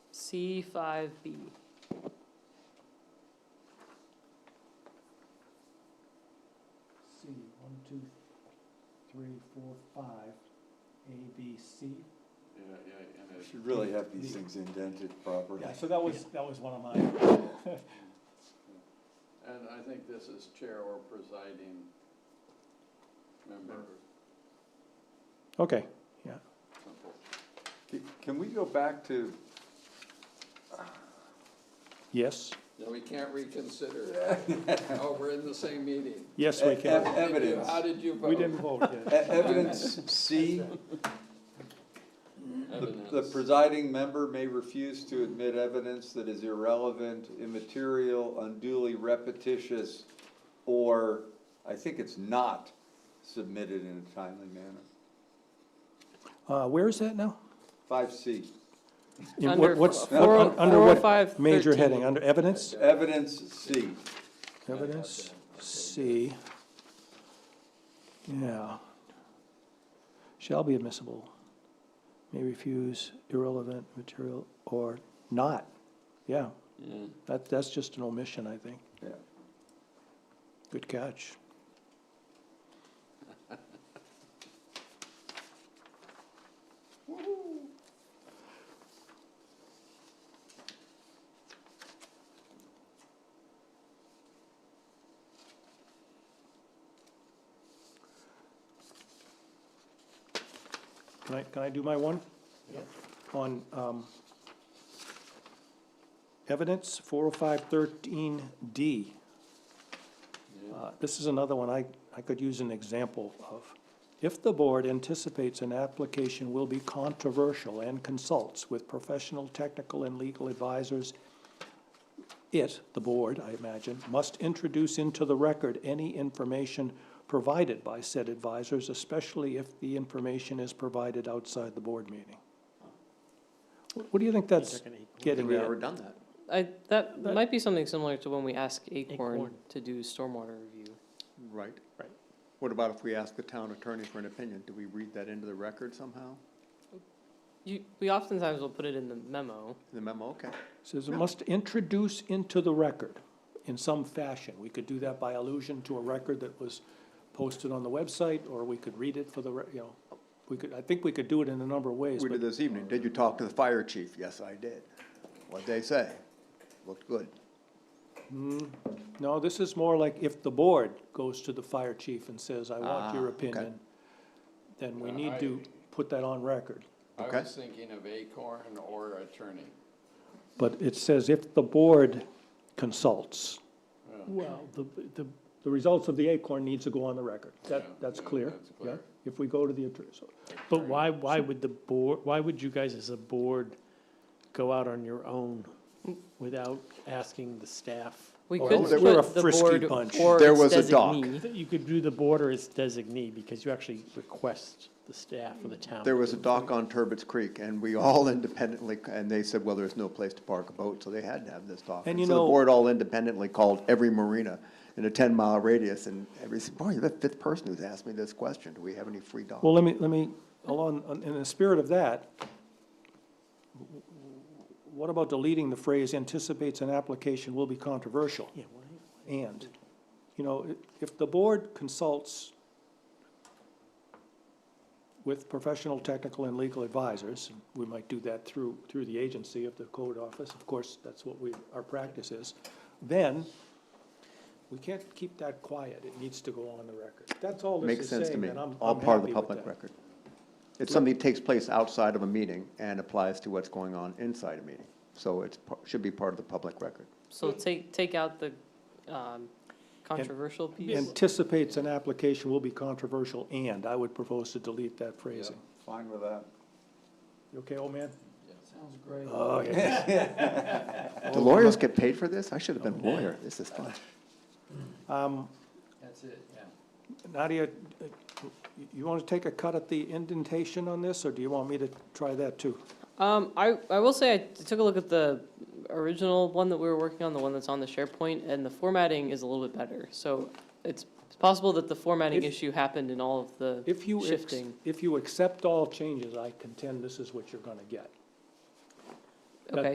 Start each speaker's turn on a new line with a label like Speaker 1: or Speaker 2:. Speaker 1: C five B.
Speaker 2: C, one, two, three, four, five, A, B, C.
Speaker 3: Yeah, yeah, and
Speaker 4: You
Speaker 3: it,
Speaker 4: Should really have these things indented properly.
Speaker 2: Yeah, so that was, that was one of mine.
Speaker 3: and I think this is chair or presiding member,
Speaker 2: Okay,
Speaker 3: simple.
Speaker 4: C- Can we go back to,
Speaker 2: yes,
Speaker 3: No, we can't reconsider. Oh, we're in the same meeting.
Speaker 2: yes,
Speaker 4: we can.
Speaker 3: How did you-
Speaker 4: Evidence.
Speaker 3: How did you vote?
Speaker 2: Uh, We didn't vote
Speaker 4: e-
Speaker 2: yet.
Speaker 4: evidence C? The- The
Speaker 3: Evidence.
Speaker 4: presiding member may refuse to admit evidence that is irrelevant, immaterial, unduly repetitious, or, I think it's not submitted in a timely manner.
Speaker 5: Uh, where is that now?
Speaker 4: Five C,
Speaker 5: In what-
Speaker 1: Under
Speaker 5: what's-
Speaker 1: f- four-
Speaker 5: un- under what
Speaker 1: 405,
Speaker 5: Major
Speaker 1: 13.
Speaker 5: heading, under evidence?
Speaker 4: evidence C.
Speaker 5: Evidence, C. Yeah. Shall be admissible. May refuse irrelevant material or not. Yeah,
Speaker 3: Yeah.
Speaker 5: that, that's just an omission, I think.
Speaker 4: Yeah.
Speaker 5: Good catch.
Speaker 2: Can I, can I do my one?
Speaker 5: On, um, evidence, four oh five thirteen D.
Speaker 3: Yeah.
Speaker 5: Uh, This is another one I, I could use an example of. If the board anticipates an application will be controversial and consults with professional, technical, and legal advisors, it, the board, I imagine, must introduce into the record any information provided by said advisors, especially if the information is provided outside the board meeting. What what do you think that's getting at?
Speaker 6: done that.
Speaker 1: I, that
Speaker 2: That-
Speaker 1: might be something similar to when we ask Acorn
Speaker 2: Acorn.
Speaker 1: to do stormwater review.
Speaker 6: Right.
Speaker 2: Right.
Speaker 6: What about if we ask the town attorney for an opinion? Do we read that into the record somehow?
Speaker 1: You, we oftentimes will put it in the memo.
Speaker 6: In the memo, okay.
Speaker 5: Says it must introduce into the record in some fashion. We could do that by allusion to a record that was posted on the website, or we could read it for the, re- you know, we could, I think we could do it in a number of ways,
Speaker 6: We
Speaker 5: but
Speaker 6: did this evening. Did you talk to the fire chief? Yes, I did. What'd they say? Looked good.
Speaker 5: no, this is more like if the board goes to the fire chief and says, I want
Speaker 6: Ah,
Speaker 5: your
Speaker 6: okay.
Speaker 5: opinion, then we
Speaker 3: Yeah,
Speaker 5: need to put that on record.
Speaker 3: I
Speaker 6: Okay.
Speaker 3: was thinking of Acorn or attorney.
Speaker 5: But it says if the board consults.
Speaker 3: Yeah.
Speaker 5: Well, the, the, the results of the Acorn needs to go on the record.
Speaker 3: Yeah,
Speaker 5: That, that's
Speaker 3: yeah,
Speaker 5: clear,
Speaker 3: that's
Speaker 5: yeah?
Speaker 3: clear.
Speaker 5: If we go to the attorney, so
Speaker 2: But why, why would the board, why would you guys as a board go out on your own without asking the staff?
Speaker 1: We
Speaker 5: Oh,
Speaker 1: could
Speaker 6: there-
Speaker 5: we're a
Speaker 1: put the
Speaker 5: frisky
Speaker 1: board
Speaker 5: bunch.
Speaker 1: or
Speaker 6: There
Speaker 1: its
Speaker 6: was a doc.
Speaker 1: designee.
Speaker 2: You could do the border as designee because you actually request the staff or the town.
Speaker 6: There was a dock on Turbot's Creek and we all independently, and they said, well, there's no place to park a boat, so they had to have this dock.
Speaker 5: And you
Speaker 6: So
Speaker 5: know-
Speaker 6: the board all independently called every marina in a ten mile radius and every, said, boy, you're the fifth person who's asked me this question. Do we have any free docks?
Speaker 5: Well, let me, let me, along, on- in the spirit of that, what about deleting the phrase anticipates an application will be controversial?
Speaker 2: Yeah, why-
Speaker 5: And, you know, i- if the board consults with professional, technical, and legal advisors, and we might do that through, through the agency of the code office, of course, that's what we, our practice is, then we can't keep that quiet, it needs to go on the record. That's all this
Speaker 6: Makes
Speaker 5: is
Speaker 6: sense to
Speaker 5: saying,
Speaker 6: me,
Speaker 5: and I'm,
Speaker 6: all
Speaker 5: I'm
Speaker 6: part
Speaker 5: happy
Speaker 6: of the
Speaker 5: with
Speaker 6: public
Speaker 5: that.
Speaker 6: record. It's something that takes place outside of a meeting and applies to what's going on inside a meeting. So it's, par- should be part of the public record.
Speaker 1: So take, take out the, um, controversial piece.
Speaker 5: Anticipates an application will be controversial and, I would propose to delete that phrasing.
Speaker 4: Fine with that.
Speaker 5: You okay, old man?
Speaker 2: Sounds great.
Speaker 5: Oh, yeah.
Speaker 6: Do lawyers get paid for this? I should have been a lawyer. This is fun.
Speaker 5: Um,
Speaker 3: That's it, yeah.
Speaker 5: Nadia, uh, you- you want to take a cut at the indentation on this, or do you want me to try that too?
Speaker 1: Um, I, I will say I took a look at the original one that we were working on, the one that's on the SharePoint, and the formatting is a little bit better. So it's it's possible that the formatting
Speaker 5: If-
Speaker 1: issue happened in all of the,
Speaker 5: If you, ex-
Speaker 1: Shifting.
Speaker 5: if you accept all changes, I contend this is what you're going to get.